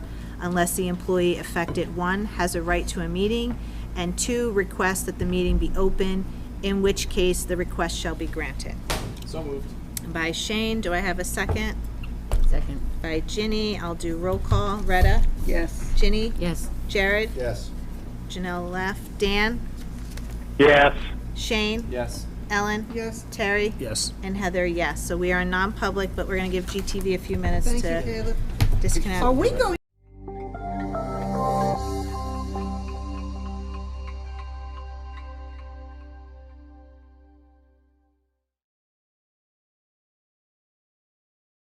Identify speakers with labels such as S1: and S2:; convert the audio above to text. S1: unless the employee affected, one, has a right to a meeting, and two, requests that the meeting be open, in which case the request shall be granted.
S2: So moved.
S1: By Shane, do I have a second?
S3: Second.
S1: By Ginny, I'll do roll call. Retta?
S3: Yes.
S1: Ginny?
S3: Yes.
S1: Jared?
S2: Yes.
S1: Janelle left. Dan?
S4: yes,
S1: Shane?
S2: Yes.
S1: Ellen? Yes. Terry?
S5: Yes.
S1: And Heather, yes. So we are non-public, but we're going to give GTV a few minutes
S6: Thank you,
S1: to
S6: Caleb.
S1: disconnect.
S6: Are we going